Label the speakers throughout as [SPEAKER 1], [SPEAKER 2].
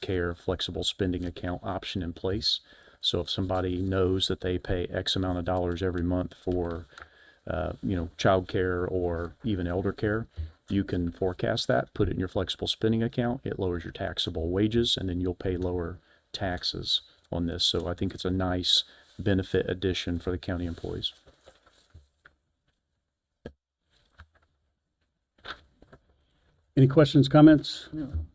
[SPEAKER 1] care flexible spending account option in place. So if somebody knows that they pay X amount of dollars every month for, uh, you know, childcare or even elder care, you can forecast that, put it in your flexible spending account. It lowers your taxable wages, and then you'll pay lower taxes on this. So I think it's a nice benefit addition for the county employees.
[SPEAKER 2] Any questions, comments?
[SPEAKER 3] I'm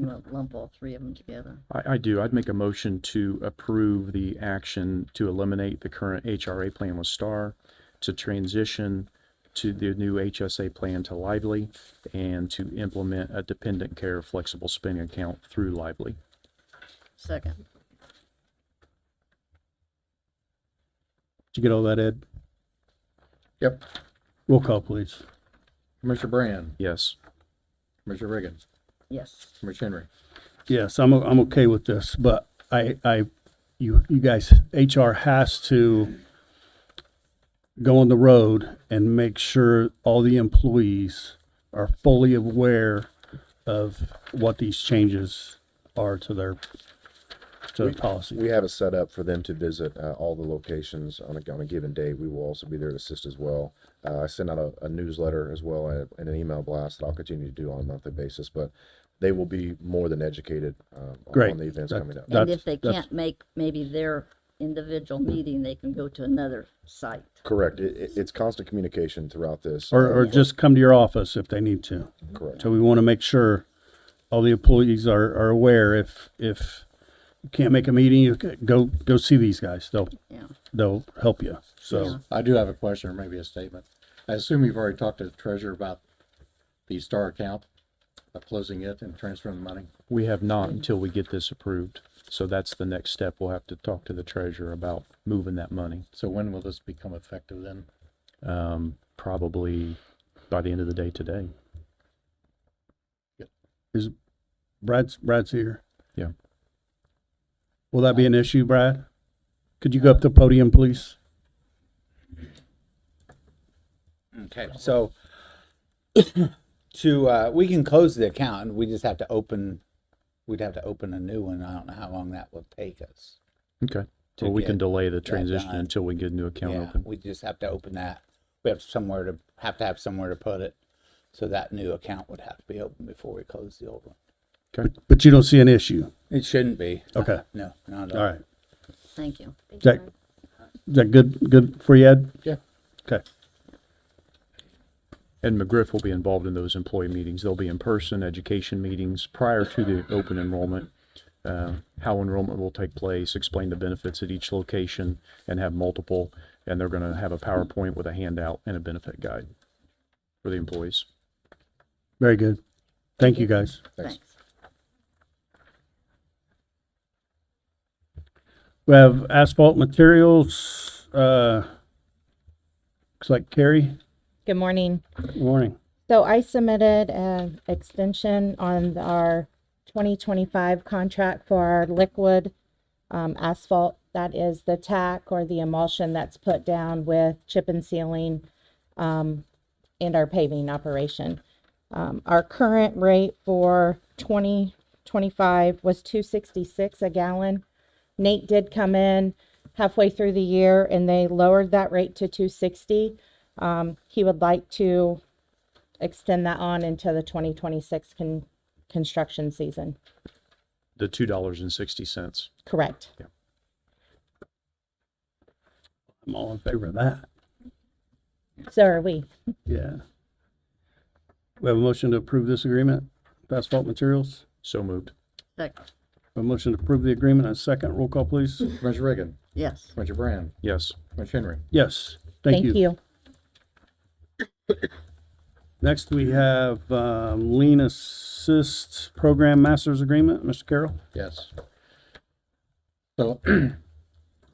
[SPEAKER 3] gonna lump all three of them together.
[SPEAKER 1] I, I do. I'd make a motion to approve the action to eliminate the current HRA plan with STAR, to transition to the new HSA plan to Lively, and to implement a dependent care flexible spending account through Lively.
[SPEAKER 3] Second,
[SPEAKER 2] Did you get all that, Ed?
[SPEAKER 4] Yep.
[SPEAKER 2] Roll call, please.
[SPEAKER 4] Commissioner Brand,
[SPEAKER 1] Yes.
[SPEAKER 4] Commissioner Reagan,
[SPEAKER 3] yes,
[SPEAKER 4] Commissioner Henry.
[SPEAKER 2] Yes, I'm, o- I'm okay with this, but I, I, you, you guys, HR has to go on the road and make sure all the employees are fully aware of what these changes are to their, to their policy.
[SPEAKER 5] We have it set up for them to visit uh, all the locations on a, on a given day. We will also be there to assist as well. Uh, I send out a, a newsletter as well and, and an email blast that I'll continue to do on a monthly basis, but they will be more than educated uh, on-
[SPEAKER 2] Great.
[SPEAKER 5] on the events
[SPEAKER 2] That-
[SPEAKER 5] coming up.
[SPEAKER 2] that-
[SPEAKER 3] and
[SPEAKER 2] That's-
[SPEAKER 3] if they
[SPEAKER 2] that's-
[SPEAKER 3] can't make maybe their individual meeting, they can go to another site.
[SPEAKER 5] Correct. It, it, it's constant communication throughout this.
[SPEAKER 2] Or, or just come to your office if they need to.
[SPEAKER 5] Correct.
[SPEAKER 2] So we want to make sure all the employees are, are aware if, if you can't make a meeting, you c- go, go see these guys. They'll,
[SPEAKER 3] Yeah,
[SPEAKER 2] they'll help you.
[SPEAKER 3] Yeah.
[SPEAKER 2] So,
[SPEAKER 4] I do have a question or maybe a statement. I assume you've already talked to the treasurer about the Star account, of closing it and transferring the money.
[SPEAKER 1] We have not until we get this approved. So that's the next step. We'll have to talk to the treasurer about moving that money.
[SPEAKER 4] So when will this become effective then?
[SPEAKER 1] Um, probably by the end of the day today.
[SPEAKER 2] Brad's, Brad's here.
[SPEAKER 1] Yeah.
[SPEAKER 2] Will that be an issue, Brad? Could you go up to the podium, please?
[SPEAKER 6] Okay, so to, uh, we can close the account and we just have to open, we'd have to open a new one. I don't know how long that will take us.
[SPEAKER 1] Okay.
[SPEAKER 6] to
[SPEAKER 1] Well, we can
[SPEAKER 6] get
[SPEAKER 1] delay the transition
[SPEAKER 6] done.
[SPEAKER 1] until we get a new account
[SPEAKER 6] Yeah,
[SPEAKER 1] open.
[SPEAKER 6] we just have to open that. We have somewhere to, have to have somewhere to put it. So that new account would have to be open before we close the old one.
[SPEAKER 1] Okay.
[SPEAKER 2] But you don't see an issue.
[SPEAKER 6] It shouldn't be.
[SPEAKER 2] Okay.
[SPEAKER 6] No, not at
[SPEAKER 2] All
[SPEAKER 6] all.
[SPEAKER 2] right.
[SPEAKER 3] thank you.
[SPEAKER 2] Is that, is that good, good for you, Ed?
[SPEAKER 4] Yeah.
[SPEAKER 2] Okay.
[SPEAKER 1] And McGriff will be involved in those employee meetings. They'll be in-person education meetings prior to the open enrollment. Uh, how enrollment will take place, explain the benefits at each location and have multiple. And they're going to have a PowerPoint with a handout and a benefit guide for the employees.
[SPEAKER 2] Very good. Thank you, guys.
[SPEAKER 5] Thanks.
[SPEAKER 3] Thanks.
[SPEAKER 2] We have asphalt materials, uh, looks like Carrie.
[SPEAKER 7] Good morning.
[SPEAKER 2] Morning.
[SPEAKER 7] So I submitted an extension on our 2025 contract for our liquid um, asphalt. That is the tack or the emulsion that's put down with chip and sealing um, and our paving operation. Um, Our current rate for 2025 was 266 a gallon. Nate did come in halfway through the year and they lowered that rate to 260. Um, He would like to extend that on into the twenty twenty-six con- construction season.
[SPEAKER 1] The two dollars and sixty cents.
[SPEAKER 7] Correct.
[SPEAKER 2] I'm all in favor of that.
[SPEAKER 7] So are we.
[SPEAKER 2] Yeah. We have a motion to approve this agreement, with asphalt materials.
[SPEAKER 1] So moved.
[SPEAKER 3] Second,
[SPEAKER 2] A motion to approve the agreement, and a second. Roll call, please.
[SPEAKER 4] Commissioner Reagan,
[SPEAKER 3] yes,
[SPEAKER 4] Commissioner Brand,
[SPEAKER 1] Yes.
[SPEAKER 4] Commissioner Henry.
[SPEAKER 2] Yes, thank
[SPEAKER 7] Thank
[SPEAKER 2] you.
[SPEAKER 7] you.
[SPEAKER 2] Next, we have um, Lean Assist Program Masters Agreement. Mr. Carroll?
[SPEAKER 4] Yes. So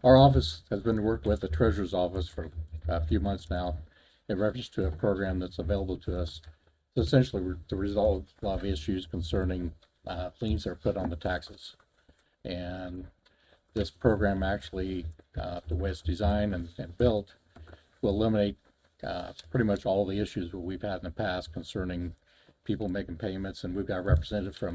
[SPEAKER 4] our office has been working with the treasurer's office for a few months now in reference to a program that's available to us. Essentially, we're to resolve a lot of issues concerning uh, liens that are put on the taxes. And this program actually, uh, the way it's designed and, and built, will eliminate uh, pretty much all the issues that we've had in the past concerning
[SPEAKER 5] people making payments, and we've got a representative from